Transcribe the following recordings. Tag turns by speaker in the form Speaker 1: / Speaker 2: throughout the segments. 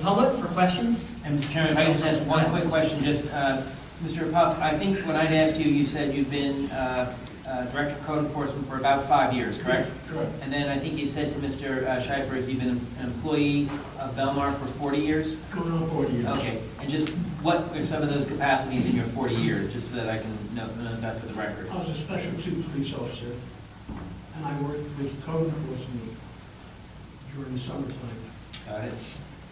Speaker 1: public for questions?
Speaker 2: And Mr. Chairman, if I could just ask one quick question, just, uh, Mr. Puff, I think when I'd asked you, you said you've been uh, uh, Director of Code Enforcement for about five years, correct?
Speaker 3: Correct.
Speaker 2: And then I think you said to Mr. Shippers, you've been an employee of Belmar for 40 years?
Speaker 3: Going on forty years.
Speaker 2: Okay, and just what are some of those capacities in your 40 years, just so that I can note note that for the record?
Speaker 3: I was a special two police officer, and I worked with code enforcement during the summertime,
Speaker 2: Got it?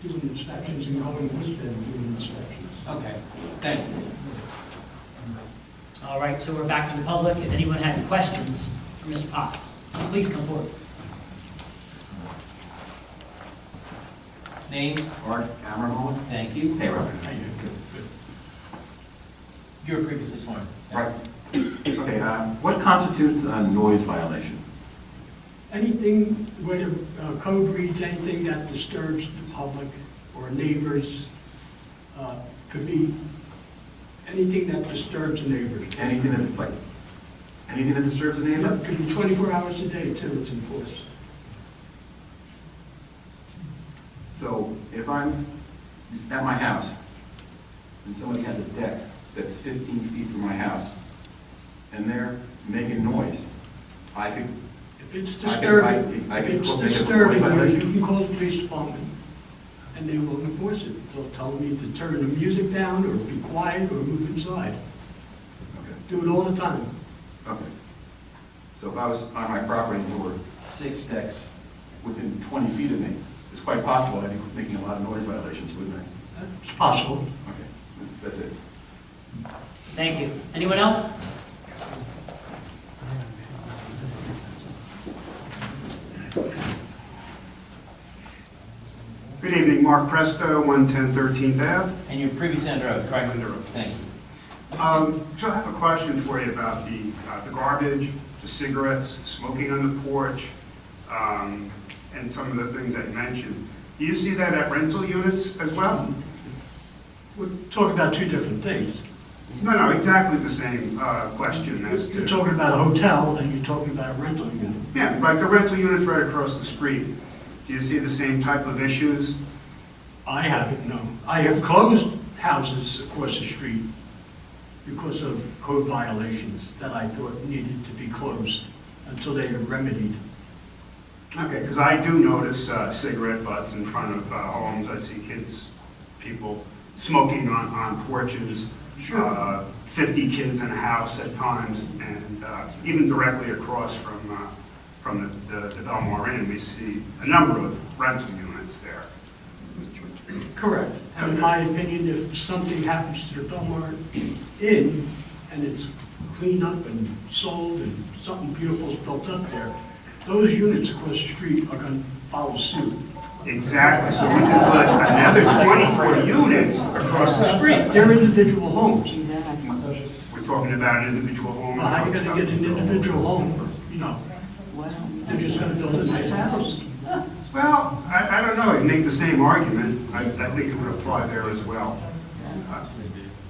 Speaker 3: doing inspections and going with them doing inspections.
Speaker 2: Okay, thank you.
Speaker 1: All right, so we're back to the public. If anyone had any questions for Mr. Pop, please come forward.
Speaker 2: Name?
Speaker 4: Art Ammerhorn.
Speaker 2: Thank you.
Speaker 4: Hey, Robert.
Speaker 2: You were previously sworn.
Speaker 4: Right. Okay, uh, what constitutes a noise violation?
Speaker 3: Anything, where uh, code reads, anything that disturbs the public or neighbors, uh, could be anything that disturbs the neighbors.
Speaker 4: Anything that, like, anything that disturbs a neighbor?
Speaker 3: It could be 24 hours a day till it's enforced.
Speaker 4: So if I'm at my house, and somebody has a deck that's 15 feet from my house, and they're making noise, I could,
Speaker 3: If it's
Speaker 4: I could- I-
Speaker 3: disturbing,
Speaker 4: I
Speaker 3: if
Speaker 4: could
Speaker 3: it's
Speaker 4: make a police
Speaker 3: disturbing, you
Speaker 4: violation.
Speaker 3: can call the police department, and they will enforce it. They'll tell me to turn the music down, or be quiet, or move inside.
Speaker 4: okay,
Speaker 3: Do it all the time.
Speaker 4: okay. So if I was on my property and there were six decks within 20 feet of me, it's quite possible I'd be making a lot of noise violations, wouldn't I?
Speaker 3: It's possible.
Speaker 4: Okay, that's, that's it.
Speaker 1: Thank you. Anyone else?
Speaker 5: Good evening, Mark Presto, 110 13th Ave.
Speaker 2: And you're previously under oath, correct?
Speaker 5: Under oath.
Speaker 2: Thank you.
Speaker 5: Um, So I have a question for you about the uh, the garbage, the cigarettes, smoking on the porch, um, and some of the things that you mentioned. Do you see that at rental units as well?
Speaker 3: We're talking about two different things.
Speaker 5: No, no, exactly the same uh, question as
Speaker 3: You're
Speaker 5: to...
Speaker 3: talking about a hotel, and you're talking about a rental unit.
Speaker 5: Yeah, like the rental units right across the street. Do you see the same type of issues?
Speaker 3: I haven't, no. I have closed houses across the street because of code violations that I thought needed to be closed until they are remedied.
Speaker 5: Okay, because I do notice uh, cigarette butts in front of uh, homes, I see kids, people smoking on, on porches.
Speaker 3: Sure.
Speaker 5: Uh, Fifty kids in a house at times, and uh, even directly across from, uh, from the, the- the Belmar Inn, we see a number of rental units there.
Speaker 3: Correct. And in my opinion, if something happens to the Belmar Inn and it's cleaned up and sold and something beautiful's built up there, those units across the street are going to follow suit.
Speaker 5: Exactly, so we could put another twenty-four units across the street.
Speaker 3: They're individual homes.
Speaker 5: We're talking about an individual home.
Speaker 3: Well, how are you gonna get an individual home, you know? They're just gonna build a nice house.
Speaker 5: Well, I, I don't know, it'd make the same argument, I, I think it would apply there as well. Uh,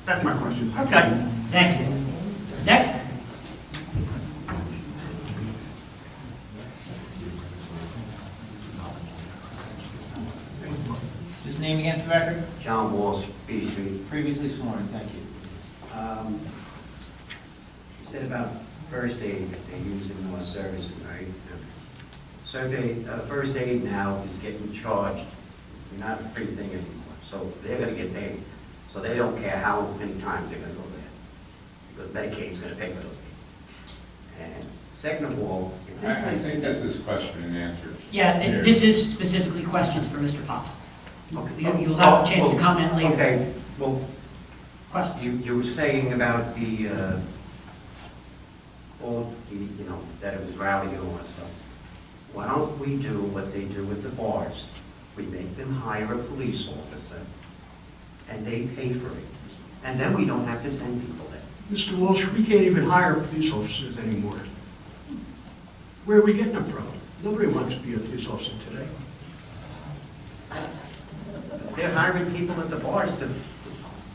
Speaker 5: That's my question.
Speaker 3: Okay.
Speaker 1: Thank you. Next?
Speaker 2: Just name again for the record?
Speaker 6: John Walsh, B Street.
Speaker 2: Previously sworn, thank you.
Speaker 6: Um, You said about first aid, that they use in more services, right? Survey, uh, first aid now is getting charged, not a free thing anymore, so they're gonna get paid. So they don't care how many times they're gonna go there, because Medicaid's gonna pay for those things. And second of all, if
Speaker 7: I I
Speaker 6: this
Speaker 7: think that's his question and answer.
Speaker 1: Yeah, th- this is specifically questions for Mr. Pop. You- You'll have a chance to comment later.
Speaker 6: Okay, well,
Speaker 1: Questions?
Speaker 6: You, you were saying about the, uh, all, the, you know, that it was rowdy and all that stuff. Why don't we do what they do with the bars? We make them hire a police officer, and they pay for it. And then we don't have to send people there.
Speaker 3: Mr. Walsh, we can't even hire police officers anymore. Where are we getting them from? Nobody wants to be a police officer today.
Speaker 6: They're hiring people at the bars to,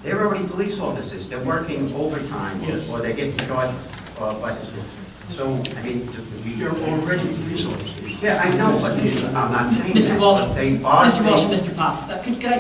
Speaker 6: they're already police officers, they're working overtime,
Speaker 3: Yes.
Speaker 6: or they get charged, uh, by the system. So, I mean, just, we.
Speaker 3: They're already police officers.
Speaker 6: Yeah, I know, but I'm not saying that.
Speaker 1: Mr. Walsh,
Speaker 6: but They are.
Speaker 1: Mr. Walsh,
Speaker 6: they-
Speaker 1: Mr. Pop, uh, could could I